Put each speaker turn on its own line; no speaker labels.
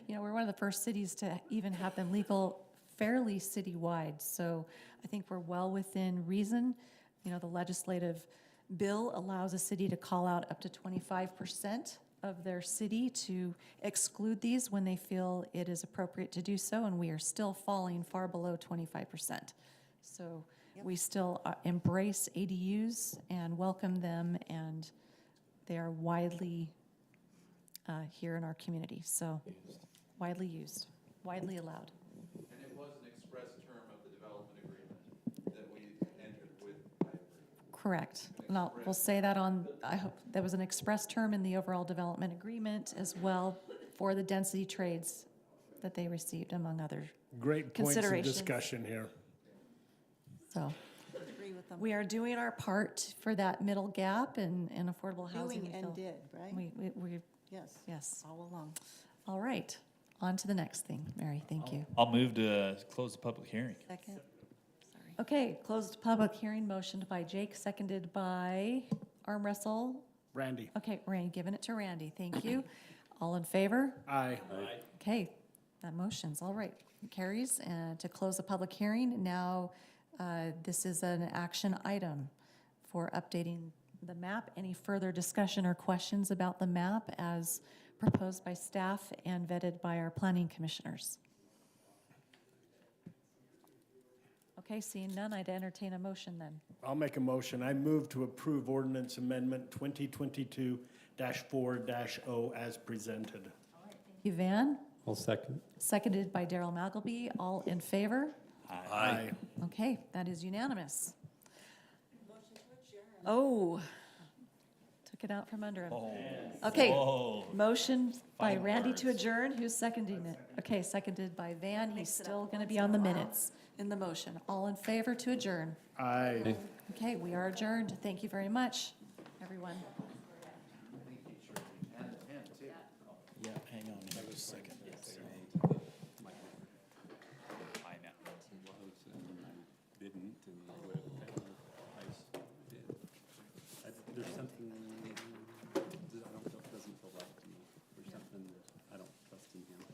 know, we're one of the first cities to even have them legal fairly citywide. So I think we're well within reason. You know, the legislative bill allows a city to call out up to 25% of their city to exclude these when they feel it is appropriate to do so, and we are still falling far below 25%. So we still uh, embrace ADUs and welcome them, and they are widely uh, here in our community, so widely used, widely allowed.
And it was an express term of the development agreement that we entered with Piper.
Correct. And I'll, we'll say that on, I hope, there was an express term in the overall development agreement as well for the density trades that they received, among other,
Great points of
Considerations.
discussion here.
so.
Agree with them.
We are doing our part for that middle gap and, and affordable housing.
Doing
we
and
feel.
did, right?
We, we, we,
Yes,
yes.
all along.
All right. On to the next thing. Mary, thank you.
I'll move to close the public hearing.
Second,
Okay, closed public hearing motioned by Jake, seconded by arm wrestle.
Randy?
Okay, Randy, giving it to Randy. Thank you. All in favor?
Aye.
Okay, that motion's all right. Carries, and to close the public hearing, now, uh, this is an action item for updating the map. Any further discussion or questions about the map as proposed by staff and vetted by our planning commissioners? Okay, seeing none, I'd entertain a motion then.
I'll make a motion. I move to approve ordinance amendment 2022-4-0 as presented.
Thank you, Van,
I'll second.
seconded by Daryl Magleby. All in favor?
Aye.
Okay, that is unanimous. Oh, took it out from under him. Okay,
Oh,
motion by
Final
Randy to
words.
adjourn, who's seconding it? Okay, seconded by Van, he's still going to be on the minutes in the motion. All in favor to adjourn?
Aye.
Okay, we are adjourned, thank you very much, everyone.